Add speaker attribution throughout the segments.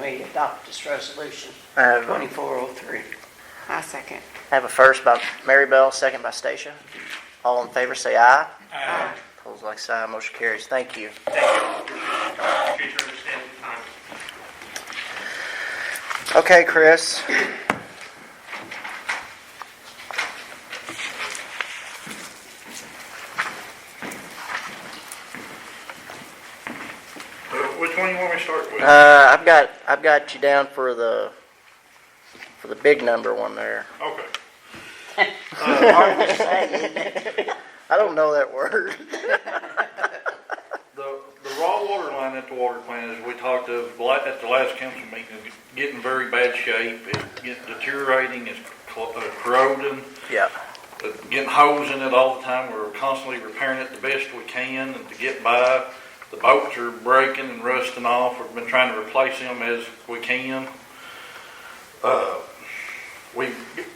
Speaker 1: we adopt this resolution
Speaker 2: I have a-
Speaker 1: 2403.
Speaker 3: I second.
Speaker 2: I have a first by Mary Bell, second by Stacia. All in favor, say aye.
Speaker 4: Aye.
Speaker 2: Opposed, like sign, motion carries. Thank you.
Speaker 4: Thank you. Appreciate your understanding and time.
Speaker 2: Okay, Chris.
Speaker 5: Uh, Which one you want me to start with?
Speaker 2: Uh, I've got, I've got you down for the, for the big number one there.
Speaker 5: Okay.
Speaker 2: I don't know that word.
Speaker 5: The, the raw water line at the water plant, as we talked of la- at the last council meeting, is getting very bad shape. It's getting deteriorating, it's cl- uh, corroding,
Speaker 2: Yeah.
Speaker 5: uh, getting holes in it all the time. We're constantly repairing it the best we can and to get by. The bolts are breaking and rusting off. We've been trying to replace them as we can. Uh, We,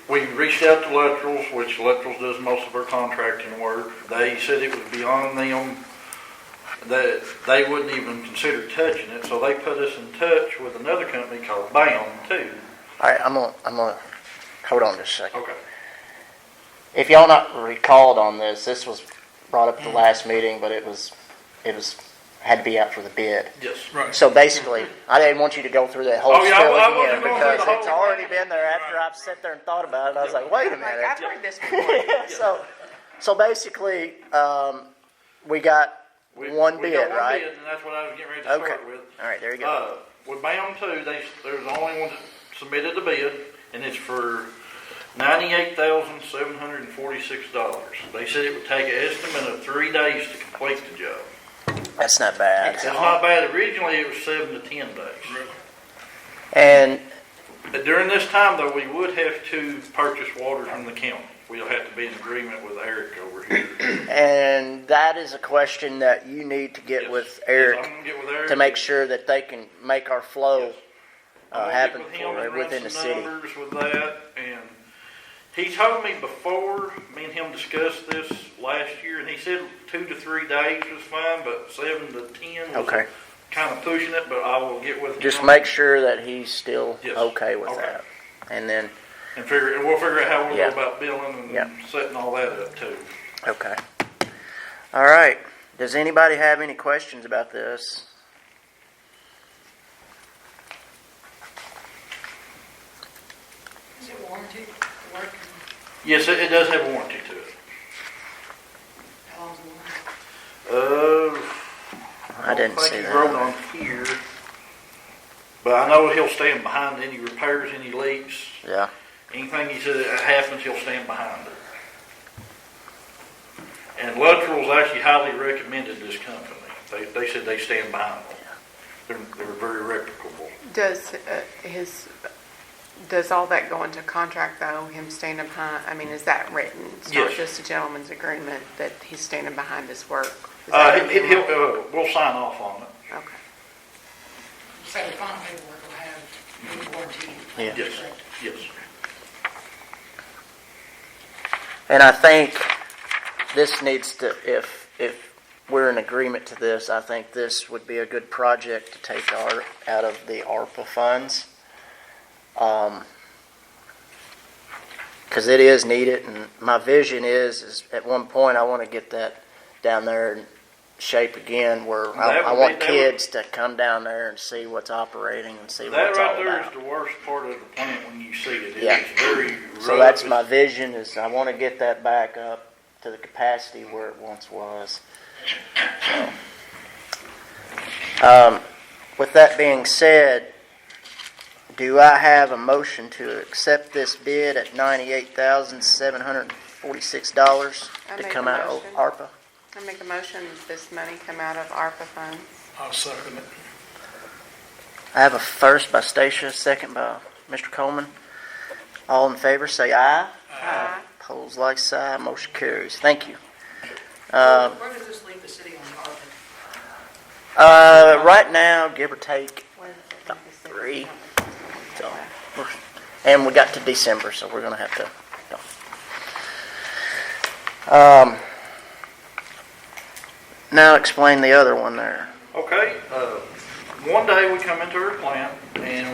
Speaker 5: we reached out to Electrals, which Electrals does most of our contracting work. They said it was beyond them that they wouldn't even consider touching it, so they put us in touch with another company called BAM too.
Speaker 2: All right, I'm gonna, I'm gonna, hold on just a second.
Speaker 5: Okay.
Speaker 2: If y'all not recalled on this, this was brought up at the last meeting, but it was, it was, had to be out for the bid.
Speaker 5: Yes.
Speaker 2: So basically, I didn't want you to go through that whole
Speaker 5: Oh, yeah, I-
Speaker 2: spiel
Speaker 5: I
Speaker 2: again
Speaker 5: wasn't going through the
Speaker 2: because it's
Speaker 5: whole-
Speaker 2: already been there after I've sat there and thought about it. and I was like, wait a
Speaker 3: Like, I've
Speaker 2: minute.
Speaker 3: heard this before.
Speaker 2: So, so basically, um, we got
Speaker 5: We-
Speaker 2: one
Speaker 5: we
Speaker 2: bid,
Speaker 5: got
Speaker 2: right?
Speaker 5: bid, And that's what I was getting ready to
Speaker 2: Okay.
Speaker 5: start with.
Speaker 2: All right, there you go.
Speaker 5: Uh, with BAM too, they, there's only one that submitted a bid, and it's for ninety-eight thousand, seven hundred and forty-six dollars. They said it would take an estimate of three days to complete the job.
Speaker 2: That's not bad.
Speaker 5: It's not bad, originally it was seven to ten days.
Speaker 2: And
Speaker 5: But During this time, though, we would have to purchase water from the county. We'll have to be in agreement with Eric over here.
Speaker 2: and that is a question that you need to get
Speaker 5: Yes.
Speaker 2: with
Speaker 5: Yes, I'm
Speaker 2: Eric
Speaker 5: gonna get with Eric.
Speaker 2: to make sure that they can make our flow
Speaker 5: Yes. I'm
Speaker 2: uh,
Speaker 5: gonna
Speaker 2: happen
Speaker 5: get with him
Speaker 2: for
Speaker 5: and run
Speaker 2: within the
Speaker 5: some
Speaker 2: city.
Speaker 5: Numbers with that, and he told me before, me and him discussed this last year, and he said two to three days was fine, but seven to ten
Speaker 2: Okay.
Speaker 5: was kind of pushing it, but I will get with him.
Speaker 2: Just make sure that he's still
Speaker 5: Yes.
Speaker 2: okay with
Speaker 5: Okay.
Speaker 2: that. And then,
Speaker 5: And figure, and we'll figure out how we'll go
Speaker 2: Yeah.
Speaker 5: about billing
Speaker 2: Yeah.
Speaker 5: and setting all that up too.
Speaker 2: okay. All right. Does anybody have any questions about this?
Speaker 6: Is it warranty? Work,
Speaker 5: Yes, it, it does have a warranty to it.
Speaker 6: how long's the warranty?
Speaker 5: Uh,
Speaker 2: I didn't
Speaker 5: think
Speaker 2: see
Speaker 5: he
Speaker 2: that.
Speaker 5: wrote on here, but I know he'll stand behind any repairs, any leaks,
Speaker 2: Yeah.
Speaker 5: anything he said that happens, he'll stand behind it. And Luttrell's actually highly recommended this company. They, they said they stand behind them. They're, they're very reputable.
Speaker 3: Does uh, his, does all that go into contract though, him standing behind, I mean, is that written? It's not
Speaker 5: Yes.
Speaker 3: just a gentleman's agreement that he's standing behind his work? Is that
Speaker 5: Uh,
Speaker 3: in
Speaker 5: he-
Speaker 3: there?
Speaker 5: he'll, uh, we'll sign off on it.
Speaker 3: Okay.
Speaker 6: So the final paperwork will have the warranty.
Speaker 2: Yeah.
Speaker 5: Yes, yes.
Speaker 2: And I think this needs to, if, if we're in agreement to this, I think this would be a good project to take our, out of the ARPA funds. Um, cause it is needed and my vision is, is at one point I wanna get that down there in shape again where I,
Speaker 5: That would
Speaker 2: I want
Speaker 5: be- that would-
Speaker 2: kids to come down there and see what's operating and see what
Speaker 5: That
Speaker 2: it's all
Speaker 5: right there is
Speaker 2: about.
Speaker 5: the worst part of the plant when you see it.
Speaker 2: Yeah.
Speaker 5: It's very rough.
Speaker 2: So that's
Speaker 5: It's
Speaker 2: my vision is I wanna get that back up to the capacity where it once was. Um, With that being said, do I have a motion to accept this bid at $98,746
Speaker 3: I
Speaker 2: to
Speaker 3: make
Speaker 2: come
Speaker 3: a
Speaker 2: out of
Speaker 3: motion.
Speaker 2: ARPA?
Speaker 3: I make a motion that this money come out of ARPA funds.
Speaker 4: I'll second it.
Speaker 2: I have a first by Stacia, second by Mr. Coleman. All in favor, say aye. Uh,
Speaker 3: Aye.
Speaker 2: Pose like sign, motion carries. Thank you.
Speaker 6: Where where does this leave the city on the ARPA?
Speaker 2: Uh, Right now, give or take,
Speaker 3: Where is it?
Speaker 2: three. So, we're- and we got to December, so we're gonna have to. go. Um, now explain the other one there.
Speaker 5: Okay, uh, one day we come into her plant and